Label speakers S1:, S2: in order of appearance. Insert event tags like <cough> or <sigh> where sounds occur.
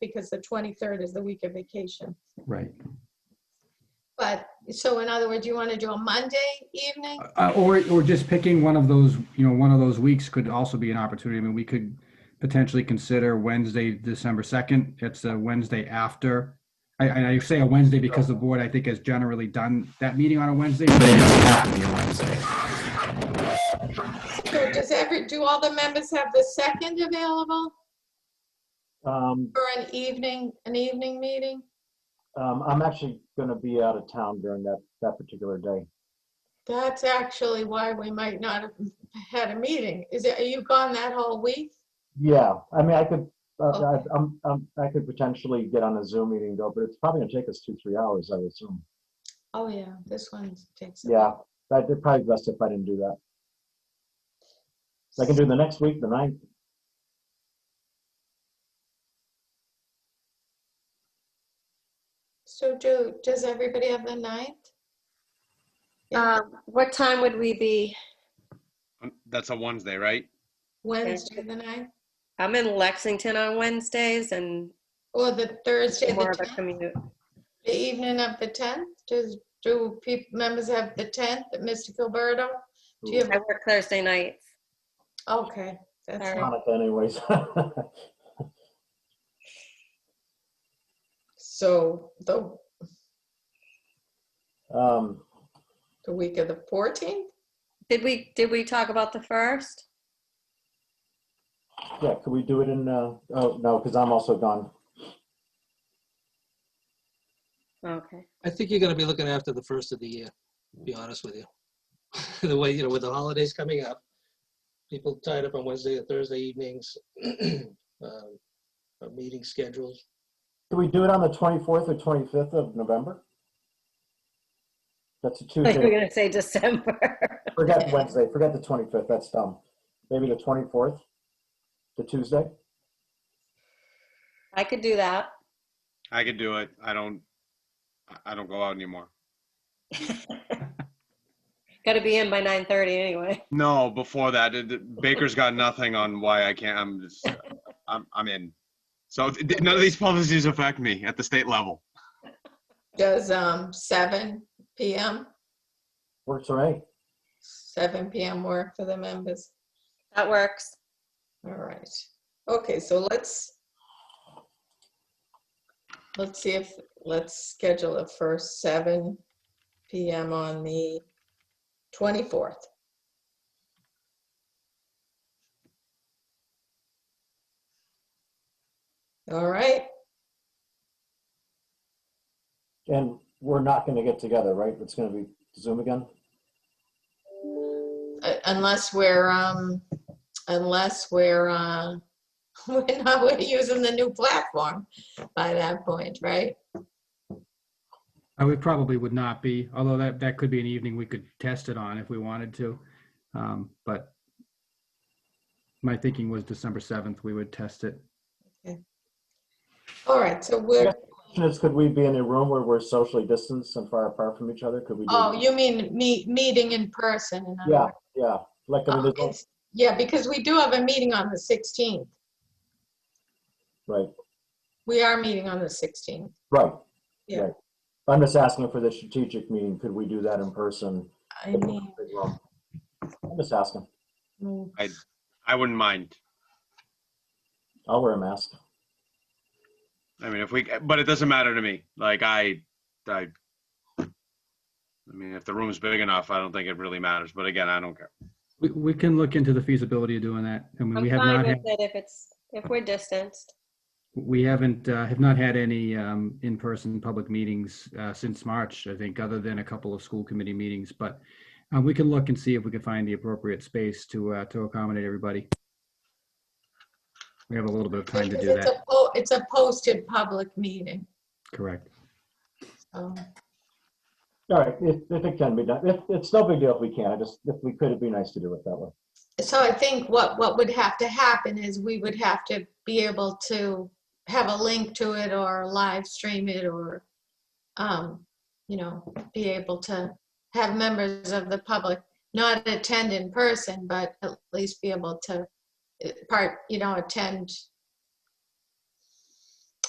S1: because the 23rd is the week of vacation.
S2: Right.
S1: But, so in other words, you want to do a Monday evening?
S2: Uh, or, or just picking one of those, you know, one of those weeks could also be an opportunity. I mean, we could potentially consider Wednesday, December 2nd. It's a Wednesday after. I, and I say a Wednesday because the board, I think, has generally done that meeting on a Wednesday.
S3: They don't have to be a Wednesday.
S1: So does every, do all the members have the second available
S4: Um,
S1: for an evening, an evening meeting?
S4: um, I'm actually going to be out of town during that, that particular day.
S1: That's actually why we might not have had a meeting. Is it, are you gone that whole week?
S4: Yeah, I mean, I could, uh, I,
S1: Okay.
S4: I'm, I'm, I could potentially get on a Zoom meeting though, but it's probably going to take us two, three hours, I would assume.
S1: Oh, yeah, this one takes. a-
S4: Yeah, that'd be probably best if I didn't do that. I can do the next week, the ninth.
S1: So do, does everybody have the ninth? Yeah.
S5: Um, What time would we be?
S6: Um, That's a Wednesday, right?
S1: Wednesday, the ninth,
S5: I'm in Lexington on Wednesdays and
S1: or the Thursday, the
S5: more of a
S1: 10th,
S5: commute.
S1: the evening of the 10th? Does, do peop members have the 10th, Mr. Gilberto? Do you
S5: I
S1: have,
S5: work Thursday nights.
S1: okay, that's,
S5: All
S1: fine.
S5: right.
S4: Hanukkah anyways. <laughs>
S1: so the,
S4: Um,
S1: the week of the 14th?
S5: Did we, did we talk about the first?
S4: yeah, could we do it in, uh, oh, no, because I'm also gone.
S5: Okay.
S2: <laughs>
S7: I think you're going to be looking after the first of the year, to be honest with you. <laughs> The way, you know, with the holidays coming up, people tied up on Wednesday and Thursday evenings, <clears throat> um, uh, meeting schedules.
S4: Could we do it on the 24th or 25th of November? That's a
S5: Like
S4: Tuesday.
S5: we're gonna say December. <laughs>
S4: Forget Wednesday, forget the 25th, that's dumb. Maybe the 24th, the Tuesday?
S5: I could do that.
S6: I could do it. I don't. I- I don't go out anymore.
S5: Gotta be in by nine thirty anyway.
S6: No, before that, it- it- Baker's got nothing on why I can't. I'm just. I'm. I'm in. So th- th- none of these policies affect me at the state level.
S1: Does, um, 7 PM,
S4: Works for me.
S1: 7 PM work for the members?
S5: That works.
S1: All right. Okay, so let's, let's see if, let's schedule it for seven PM on the 24th. All right,
S4: And we're not going to get together, right? It's going to be Zoom again?
S1: uh, unless we're, um, unless we're, uh, <laughs> we're not, <laughs> we're using the new platform by that point, right?
S2: I would Oh, probably would not be, although that, that could be an evening we could test it on if we wanted to. Um, but my thinking was December 7th, we would test it.
S1: All right, so we're,
S4: Question is, could we be in a room where we're socially distanced and far apart from each other? Could we do?
S1: oh, you mean meet, meeting in person? in other
S4: Yeah,
S1: words.
S4: yeah. Like, I mean,
S1: Oh,
S4: there's no-
S1: it's- Yeah, because we do have a meeting on the 16th.
S4: right,
S1: We are meeting on the 16th.
S4: right.
S1: Yeah.
S4: right. I'm just asking for the strategic meeting. Could we do that in person?
S1: I mean,
S4: I'm just asking.
S1: mm,
S6: I wouldn't mind.
S4: I'll wear a mask.
S6: I mean, if we. But it doesn't matter to me. Like I. I. I mean, if the room's big enough, I don't think it really matters. But again, I don't care.
S2: We, we can look into the feasibility of doing that. I mean,
S5: I'm
S2: we have
S5: fine
S2: not had.
S5: with it if it's, if we're distanced.
S2: We haven't, uh, have not had any um, in-person public meetings uh, since March, I think, other than a couple of school committee meetings. But uh, we can look and see if we can find the appropriate space to, uh, to accommodate everybody. We have a little bit of time to
S1: because
S2: do
S1: It's
S2: that,
S1: a po- it's a posted public meeting.
S2: correct?
S1: so.
S4: All right, if, if it can be done, if, it's no big deal if we can, I just, if we could, it'd be nice to do it that way.
S1: So I think what, what would have to happen is we would have to be able to have a link to it or live stream it or, um, you know, be able to have members of the public not attend in person, but at least be able to eh, part, you know, attend